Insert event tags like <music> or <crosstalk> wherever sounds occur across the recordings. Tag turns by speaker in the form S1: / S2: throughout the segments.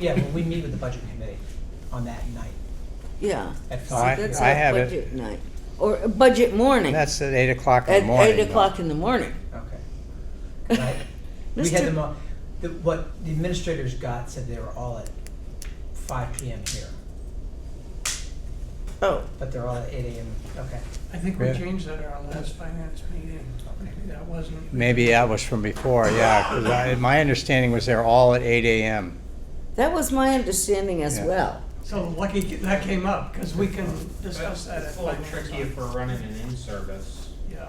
S1: yeah, when we meet with the budget committee on that night.
S2: Yeah.
S1: At
S2: So
S1: five.
S2: that's
S3: Oh, I
S2: our
S3: have it.
S2: budget night, or a budget morning.
S3: That's at eight o'clock in
S2: At
S3: the morning.
S2: eight o'clock in the morning.
S1: Okay. <laughs> Right. We
S2: Mr.
S1: had them all, the, what the administrators got said they were all at five PM here,
S2: Oh,
S1: but they're all at eight AM, okay.
S4: I think we
S3: Yeah.
S4: changed that at our last finance meeting, maybe that wasn't.
S3: Maybe that was from before, yeah, 'cause I, my understanding was they're all at eight AM.
S2: that was my understanding as
S3: Yeah.
S2: well.
S4: So lucky that came up, because we can discuss that at
S5: It's a little
S4: finance.
S5: tricky if we're running an in-service.
S4: Yeah,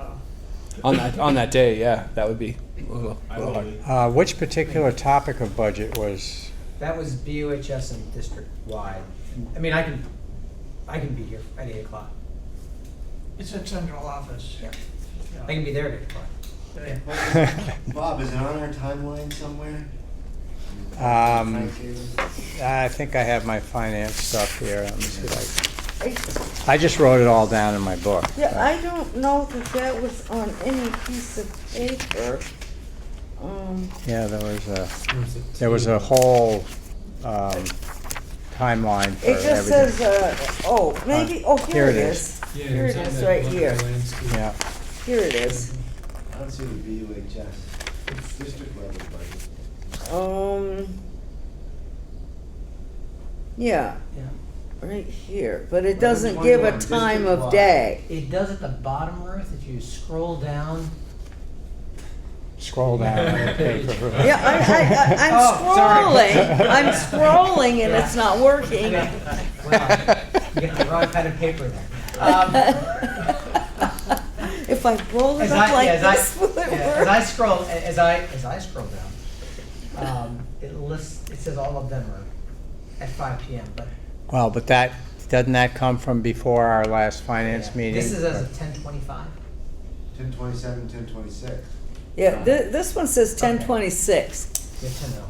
S6: on that on that day. Yeah, that would be. a little-
S5: I
S6: little hard.
S5: believe.
S3: Uh, which particular topic of budget was, <laughs>
S1: That was BUHS and district-wide. I mean, I can, I can be here at eight o'clock.
S4: it's at central office.
S1: Yeah.
S4: Yeah.
S1: I can be there at eight o'clock.
S4: They-
S7: Bob, is it on our timeline somewhere?
S3: um,
S7: Timetable?
S3: I think I have my finance stuff here, let me see if
S2: I-
S3: I, I just wrote it all down in my book.
S2: Yeah, I don't know that that was on any piece of paper. Um,
S3: Yeah, there was a, there was a whole, um, timeline for
S2: It just
S3: everything.
S2: says, uh, oh, maybe, oh, here it is. Here it is, right here. uh,
S3: Yeah,
S2: Here it is.
S7: I don't see the VUHS. It's district level budget.
S2: Um, yeah,
S1: Yeah.
S2: right here, but it
S7: Well,
S2: doesn't
S7: there's
S2: give
S7: one
S2: a
S7: on
S2: time of
S7: district-wide.
S2: day.
S1: It does at the bottom, Ruth, if you scroll down.
S3: scroll
S2: <laughs>
S3: down on the paper.
S2: Yeah,
S1: Oh, sorry.
S2: I, I, I, I'm scrolling, I'm scrolling and it's not working.
S1: Wow, you got the wrong kind of paper there.
S2: <laughs>
S1: Um, <laughs>
S2: If I roll it
S1: As
S2: up
S1: I, yeah,
S2: like
S1: as I,
S2: this, will it
S1: yeah, as I
S2: work?
S1: scroll, a- as I, as I scroll down, um, it lists, it says all of them are at five PM, but
S3: Well, but that, doesn't that come from before our last finance meeting?
S1: this is as of ten twenty-five.
S7: Ten twenty-seven, ten twenty-six.
S2: Yeah, thi- this one says ten
S1: Okay.
S2: twenty-six.
S1: Good to know.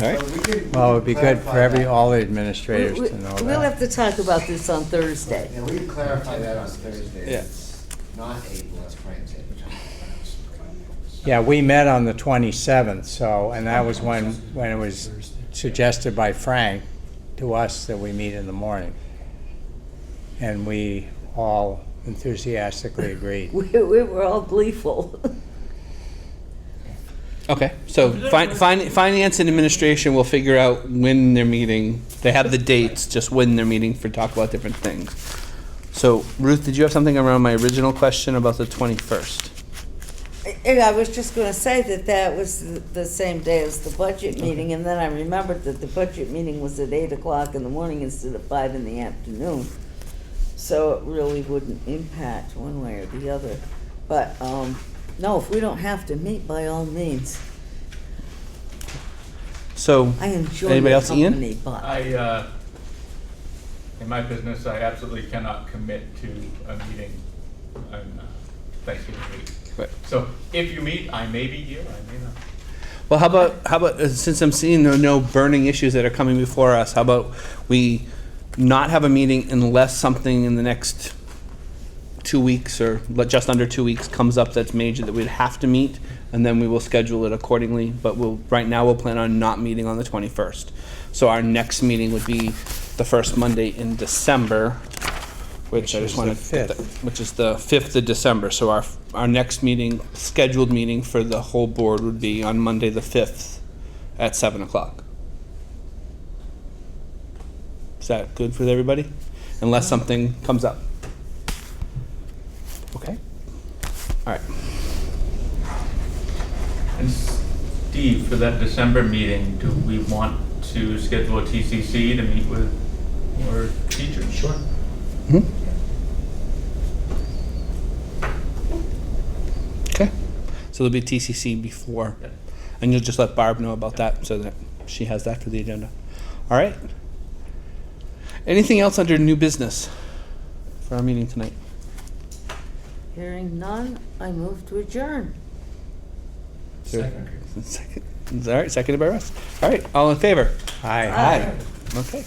S3: Right.
S7: So we could- we
S3: Well, it would
S7: could
S3: be good for
S7: clarify
S3: every,
S7: that.
S3: all the
S2: We-
S3: administrators
S2: we-
S3: to know
S2: We'll have
S3: that.
S2: to talk about this on Thursday.
S7: Yeah, we can clarify that on Thursday.
S6: Yeah.
S7: It's Not eight, let's Frank's it.
S3: Yeah, we met on the twenty-seventh, so, and that was when, when it was suggested by Frank to us that we meet in the morning. And we all enthusiastically agreed.
S2: We, we were all gleeful. <laughs>
S6: Okay, so fin- fin- finance and administration will figure out when they're meeting. They have the dates, just when they're meeting for talk about different things. So Ruth, did you have something around my original question about the twenty-first?
S2: And I was just gonna say that that was the- the same day as the budget meeting, and then I remembered that the budget meeting was at eight o'clock in the morning instead of five in the afternoon. So it really wouldn't impact one way or the other. But, um, no, if we don't have to meet, by all means.
S6: So,
S2: I enjoy
S6: Anybody
S2: your
S6: else, Ian?
S2: company, but
S8: I, uh, in my business, I absolutely cannot commit to a meeting on uh, Thanksgiving week.
S6: Right.
S8: So if you meet, I may be here, I may not.
S6: well, how about, how about, uh, since I'm seeing there are no burning issues that are coming before us, how about we not have a meeting unless something in the next two weeks or le- just under two weeks comes up that's major that we'd have to meet, and then we will schedule it accordingly. But we'll, right now, we'll plan on not meeting on the 21st. So our next meeting would be the first Monday in December,
S3: Which
S6: which I
S3: is
S6: just
S3: the
S6: want to, which is the 5th of December. So our, our next meeting, scheduled meeting for the whole board would be on Monday, the 5th at 7 o'clock. Is that good for everybody? Unless something comes up. Okay. All right.
S8: And Steve, for that December meeting, do we want to schedule a TCC to meet with your teachers? Sure.
S6: Okay. So there'll be TCC before, and you'll just let Barb know about that so that she has that for the agenda. All right. Anything else under new business for our meeting tonight? <laughs>
S2: hearing none, I move to adjourn.
S6: Second. Second. All right. Seconded by Russ. All right. All in favor?
S3: Aye.
S6: Okay.